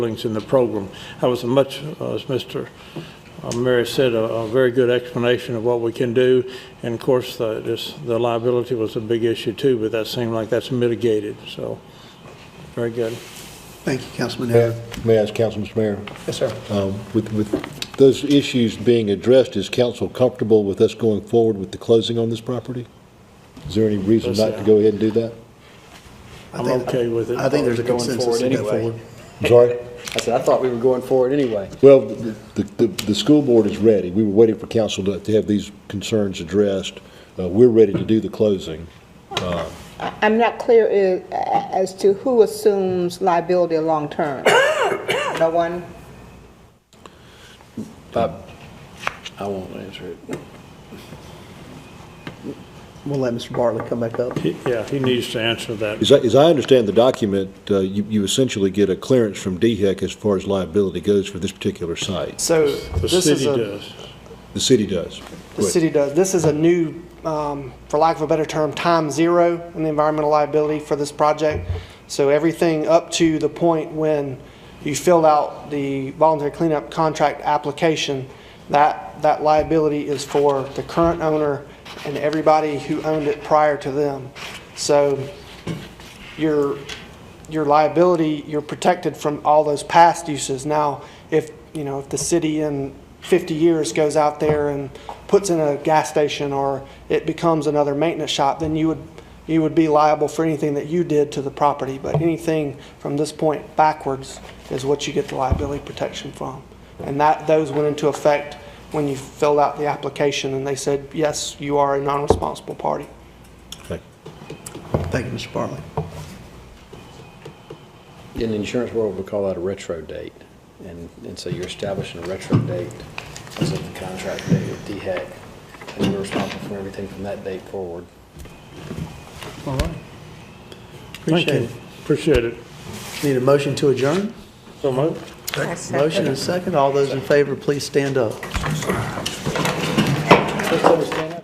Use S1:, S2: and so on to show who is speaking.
S1: buildings in the program. That was a much, uh, as Mr. Mary said, a a very good explanation of what we can do. And of course, the this- the liability was a big issue too, but that seemed like that's mitigated, so, very good.
S2: Thank you, Councilman
S3: May
S2: Harris.
S3: may I ask Council, Mr. Mayor,
S2: Yes, sir.
S3: um, with, with those issues being addressed, is council comfortable with us going forward with the closing on this property? Is there any reason
S1: Yes,
S3: not
S1: sir.
S3: to go ahead and do that?
S2: I
S1: I'm
S2: think-
S1: okay with it.
S2: I think there's a
S4: Going
S2: consensus
S4: forward
S2: to go
S4: anyway.
S2: forward.
S3: I'm sorry?
S4: I said, I thought we were going forward anyway.
S3: Well, the, the, the school board is ready. We were waiting for council to, to have these concerns addressed. Uh, we're ready to do the closing.
S5: I'm not clear i- a- as to who assumes liability long-term. No one?
S4: I won't answer it.
S2: We'll let Mr. Bartley come back up.
S1: He- Yeah, he needs to answer that.
S3: As I, as I understand the document, uh, you, you essentially get a clearance from DHEC as far as liability goes for this particular site.
S6: So
S1: The
S6: this is
S1: city
S6: a,
S1: does.
S3: The city does.
S6: the city does, this is a new, um, for lack of a better term, time zero in the environmental liability for this project. So everything up to the point when you fill out the voluntary cleanup contract application, that, that liability is for the current owner and everybody who owned it prior to them. So your, your liability, you're protected from all those past uses. Now, if, you know, if the city in 50 years goes out there and puts in a gas station or it becomes another maintenance shop, then you would, you would be liable for anything that you did to the property. But anything from this point backwards is what you get the liability protection from. And that, those went into effect when you filled out the application and they said, yes, you are a non-responsible party.
S3: Thank you.
S2: Thank you, Mr. Bartley.
S4: In the insurance world, we call that a retro date. And, and so you're establishing a retro date as of the contract date with DHEC. And we're responsible for everything from that date forward.
S2: All right.
S1: Thank
S2: Appreciate
S1: you.
S2: it.
S1: Appreciate it.
S2: Need a motion to adjourn?
S1: So moved.
S2: Motion and second. All those in favor, please stand up.